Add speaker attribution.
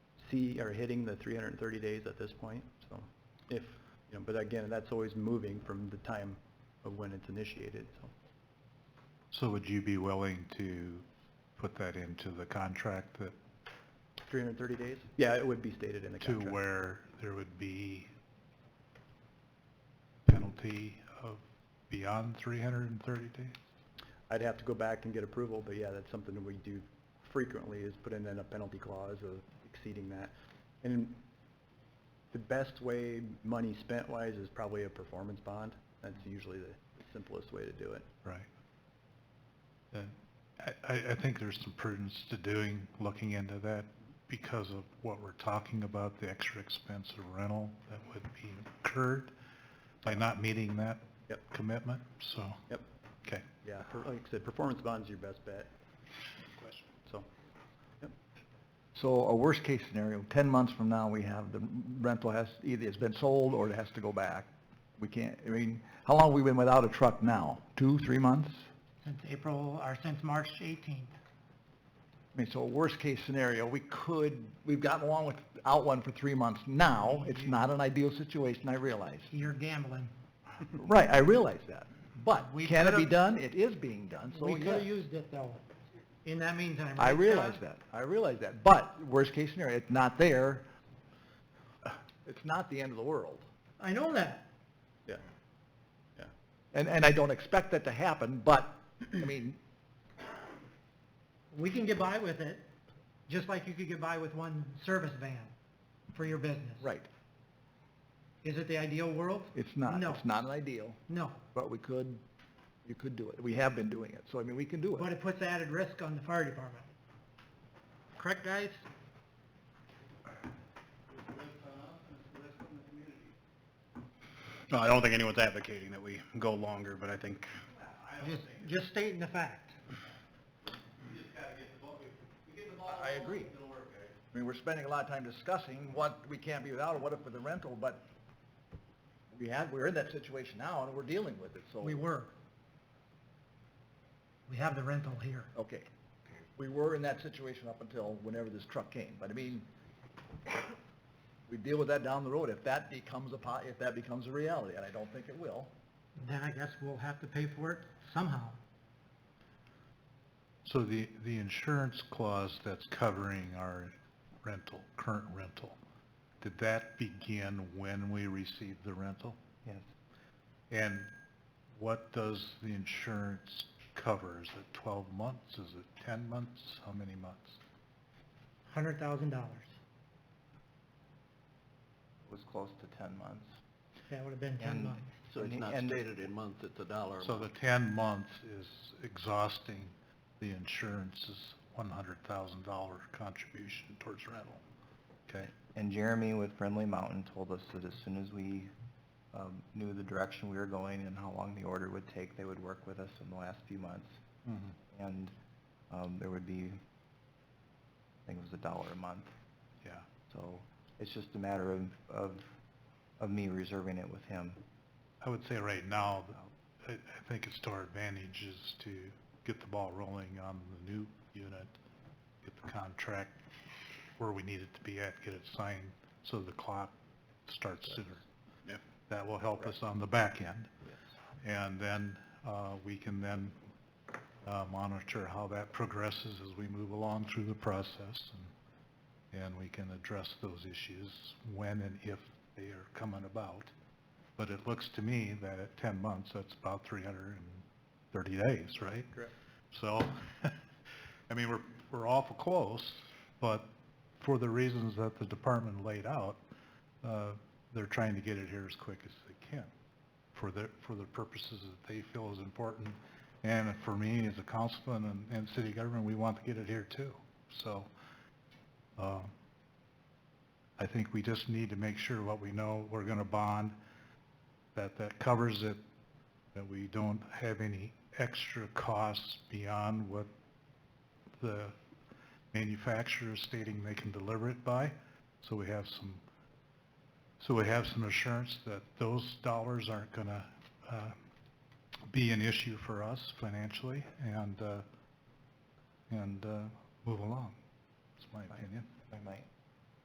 Speaker 1: see, are hitting the 330 days at this point, so if, you know, but again, that's always moving from the time of when it's initiated, so.
Speaker 2: So would you be willing to put that into the contract that,
Speaker 1: 330 days? Yeah, it would be stated in the
Speaker 2: to
Speaker 1: contract.
Speaker 2: where there would be penalty of beyond 330 days?
Speaker 1: I'd have to go back and get approval, but yeah, that's something that we do frequently is put in then a penalty clause of exceeding that. And the best way money spent wise is probably a performance bond. That's usually the simplest way to do it.
Speaker 2: Right. And I, I I think there's some prudence to doing, looking into that because of what we're talking about, the extra expense of rental that would be incurred by not meeting that
Speaker 1: Yep.
Speaker 2: commitment, so.
Speaker 1: Yep,
Speaker 2: Okay.
Speaker 1: yeah, per- like I said, performance bond's your best bet,
Speaker 2: Question.
Speaker 1: so. yep.
Speaker 3: So a worst-case scenario, 10 months from now, we have, the rental has, either it's been sold or it has to go back. We can't, I mean, how long have we been without a truck now? Two, three months?
Speaker 4: Since April, or since March 18th.
Speaker 3: I mean, so worst-case scenario, we could, we've gotten along without one for three months now. It's not an ideal situation, I realize.
Speaker 4: You're gambling.
Speaker 3: Right, I realize that. But
Speaker 4: We
Speaker 3: can it be
Speaker 4: could've-
Speaker 3: done? It is being done, so
Speaker 4: We could have
Speaker 3: yes.
Speaker 4: used it though, in that meantime.
Speaker 3: I
Speaker 4: right,
Speaker 3: realize
Speaker 4: Todd?
Speaker 3: that, I realize that. But worst-case scenario, it's not there. It's not the end of the world.
Speaker 4: I know that.
Speaker 1: Yeah, yeah.
Speaker 3: And, and I don't expect that to happen, but, I mean,
Speaker 4: We can get by with it, just like you could get by with one service van for your business.
Speaker 3: right,
Speaker 4: Is it the ideal world?
Speaker 3: it's not,
Speaker 4: No.
Speaker 3: it's not an ideal,
Speaker 4: No,
Speaker 3: but we could, you could do it. We have been doing it, so I mean, we can do
Speaker 4: but
Speaker 3: it.
Speaker 4: it puts added risk on the fire department. Correct, guys?
Speaker 5: No, I don't think anyone's advocating that we go longer, but I think
Speaker 4: Just, just stating the fact.
Speaker 3: I agree.
Speaker 4: eh?
Speaker 3: I mean, we're spending a lot of time discussing what we can't be without, or what if with the rental, but we had, we're in that situation now, and we're dealing with it, so.
Speaker 4: We were. We have the rental here.
Speaker 3: Okay. We were in that situation up until whenever this truck came, but I mean, we deal with that down the road if that becomes a, po- if that becomes a reality, and I don't think it will.
Speaker 4: Then I guess we'll have to pay for it somehow.
Speaker 2: So the, the insurance clause that's covering our rental, current rental, did that begin when we received the rental?
Speaker 1: Yes.
Speaker 2: And what does the insurance cover? Is it 12 months? Is it 10 months? How many months?
Speaker 4: Hundred thousand dollars.
Speaker 3: was close to 10 months.
Speaker 4: That would have been ten months.
Speaker 3: So it's not stated in months, it's a dollar.
Speaker 2: So the 10 months is exhausting the insurance's $100,000 contribution towards rental. Okay?
Speaker 6: And Jeremy with Friendly Mountain told us that as soon as we um, knew the direction we were going and how long the order would take, they would work with us in the last few months. And um, there would be, I think it was a dollar a month.
Speaker 2: Yeah.
Speaker 6: So it's just a matter of, of, of me reserving it with him.
Speaker 2: I would say right now, I, I think it's to our advantage is to get the ball rolling on the new unit, get the contract where we need it to be at, get it signed, so the clock starts sooner.
Speaker 5: Yep.
Speaker 2: That will help us on the back end. And then, uh, we can then, uh, monitor how that progresses as we move along through the process. and- And we can address those issues when and if they are coming about. But it looks to me that at 10 months, that's about 330 days, right?
Speaker 1: Correct.
Speaker 2: So, I mean, we're, we're awful close, but for the reasons that the department laid out, uh, they're trying to get it here as quick as they can for the, for the purposes that they feel is important. And for me, as a councilman and, and city government, we want to get it here too. So, uh, I think we just need to make sure what we know we're going to bond, that that covers it, that we don't have any extra costs beyond what the manufacturer is stating they can deliver it by. So we have some, so we have some assurance that those dollars aren't going to be an issue for us financially and, uh, and uh, move along. That's my opinion.
Speaker 6: I might.